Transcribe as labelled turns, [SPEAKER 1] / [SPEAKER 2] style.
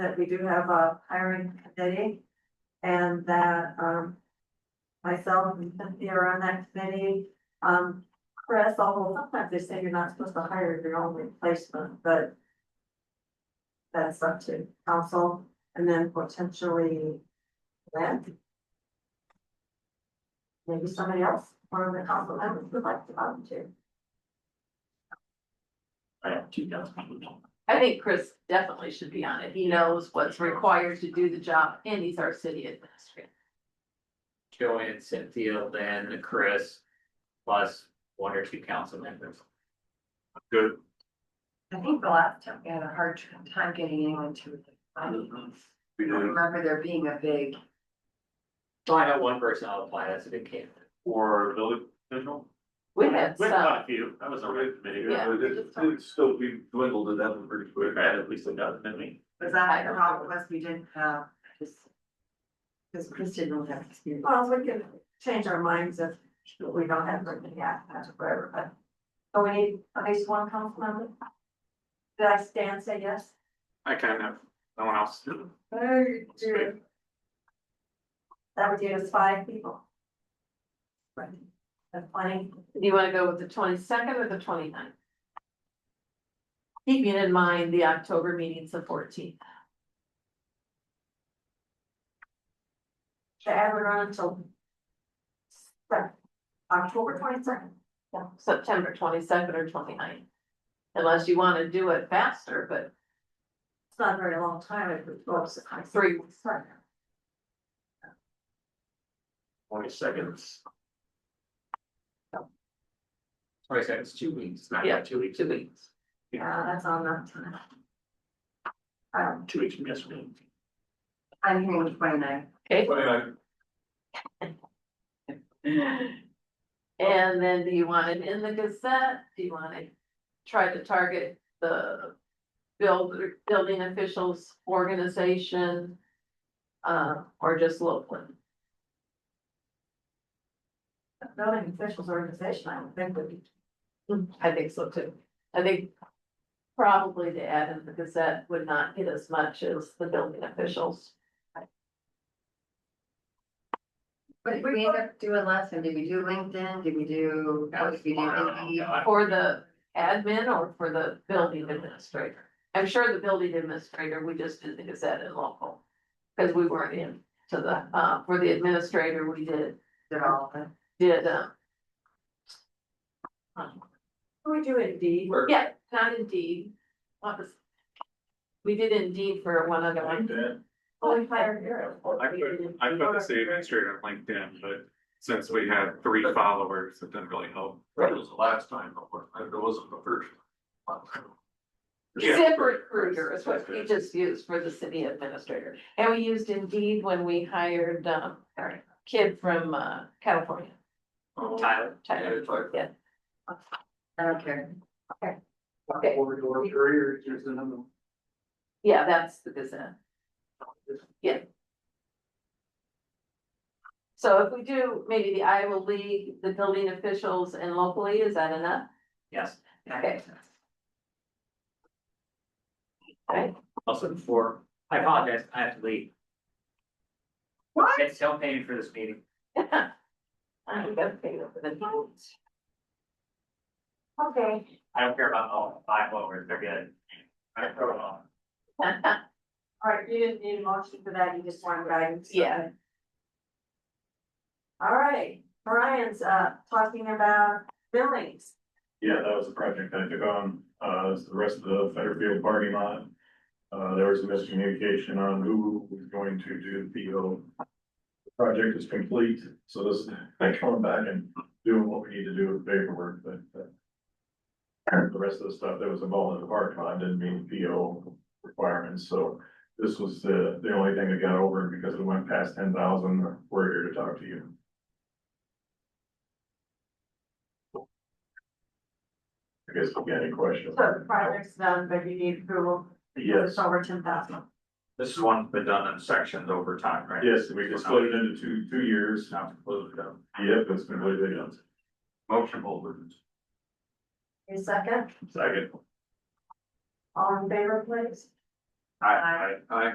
[SPEAKER 1] that we do have a hiring committee and that, um, myself and Cynthia are on that committee. Um, Chris, although sometimes they say you're not supposed to hire your own replacement, but that's up to council and then potentially Lynn. Maybe somebody else from the council members would like to volunteer.
[SPEAKER 2] I have two thousand people.
[SPEAKER 3] I think Chris definitely should be on it. He knows what's required to do the job and he's our city administrator.
[SPEAKER 2] Joanne, Cynthia, then Chris, plus one or two council members.
[SPEAKER 4] Good.
[SPEAKER 5] I think the last time we had a hard tr- time getting anyone to. it. I don't
[SPEAKER 4] We did,
[SPEAKER 5] remember there being a big,
[SPEAKER 2] So I have one person I'll apply, that's a good candidate.
[SPEAKER 4] or village official.
[SPEAKER 3] We had
[SPEAKER 2] We
[SPEAKER 3] some,
[SPEAKER 2] a few, that was committee.
[SPEAKER 3] Yeah.
[SPEAKER 4] But It's it's still, we dwindled it down pretty quick.
[SPEAKER 2] Right, at least a dozen, didn't we?
[SPEAKER 5] was that the problem was we didn't have, just. Cause Chris didn't really have experience.
[SPEAKER 1] Well, we can change our minds if we don't have written yet, that's forever, but. So we need at least one council member? Did I stand say yes?
[SPEAKER 4] I kind of, no one else.
[SPEAKER 1] Very That would give us five people. Right. That's plenty.
[SPEAKER 3] do you wanna go with the twenty second or the 29th? Keeping in mind the October meeting's the fourteenth.
[SPEAKER 1] The ad would run until Sep- October twenty second.
[SPEAKER 3] September twenty second or 29th, Unless you wanna do it faster, but
[SPEAKER 1] It's not a very long time. It would go up to high
[SPEAKER 3] three weeks.
[SPEAKER 1] Sorry.
[SPEAKER 2] Twenty seconds. Twenty seconds, two weeks, not
[SPEAKER 3] Yeah,
[SPEAKER 2] not two weeks.
[SPEAKER 3] two weeks.
[SPEAKER 1] Yeah, that's on that time. Um,
[SPEAKER 2] Two weeks from yesterday.
[SPEAKER 5] I'm hearing twenty nine.
[SPEAKER 3] Okay,
[SPEAKER 4] But I,
[SPEAKER 3] And then do you want it in the Gazette? Do you want to try to target the build, building officials, organization? Uh, or just local?
[SPEAKER 1] the building officials organization, I would think would be
[SPEAKER 3] I think so too. I think probably to add in the Gazette would not hit as much as the building officials.
[SPEAKER 5] But did we end up doing last time, did we do LinkedIn, did we do, what did we do Indeed?
[SPEAKER 3] For the admin or for the building administrator? I'm sure the building administrator, we just did the Gazette and local. Cause we weren't in to the, uh, for the administrator, we did,
[SPEAKER 5] Did all of them?
[SPEAKER 3] did, uh,
[SPEAKER 1] We do indeed.
[SPEAKER 2] We're-
[SPEAKER 3] yeah, not indeed. What was? We did indeed for one other one.
[SPEAKER 1] Well, we hired her.
[SPEAKER 4] I put, I put the city administrator on LinkedIn, but since we had three followers, it didn't really help.
[SPEAKER 6] That was the last time, but what- it wasn't the first.
[SPEAKER 4] Yeah.
[SPEAKER 3] Zip recruiter is what we just used for the city administrator. And we used Indeed when we hired, um, our kid from, uh, California,
[SPEAKER 2] Tyler,
[SPEAKER 3] Tyler. Yeah.
[SPEAKER 5] I don't care.
[SPEAKER 3] Okay. Yeah, that's the Gazette. Yeah. So if we do maybe the Iowa League, the building officials and locally, is that enough?
[SPEAKER 2] yes,
[SPEAKER 3] Okay.
[SPEAKER 2] also before, I apologize, I have to leave.
[SPEAKER 5] What?
[SPEAKER 2] It's still paying for this meeting.
[SPEAKER 3] I'm gonna pay them for the-
[SPEAKER 1] Okay,
[SPEAKER 2] I don't care about all five lowers, they're good. I don't care about all.
[SPEAKER 1] all right, you didn't need a motion for that, you just wanted guidance.
[SPEAKER 3] Yeah.
[SPEAKER 1] Okay. All right, Brian's uh talking about buildings.
[SPEAKER 7] Yeah, that was a project I took on, uh, it was the rest of the Federfield parking lot. Uh, there was a miscommunication on who was going to do the PO. The Project is complete, so this, they're coming back and doing what we need to do with paperwork, but, uh, the rest of the stuff that was involved in the parking lot didn't meet the PO requirements, so this was the, the only thing that got over and because we went past ten thousand, we're here to talk to you. I guess we got any questions?
[SPEAKER 1] So the project's done, but you need approval.
[SPEAKER 7] Yes.
[SPEAKER 1] It's over ten thousand.
[SPEAKER 6] This is one been done in sections over time, right?
[SPEAKER 7] Yes, we can split it into two, two years.
[SPEAKER 6] Now to close it up.
[SPEAKER 7] Yep, it's been really big.
[SPEAKER 6] Motion holders.
[SPEAKER 1] A second,
[SPEAKER 7] Second.
[SPEAKER 1] all in favor, please?
[SPEAKER 6] I, I, I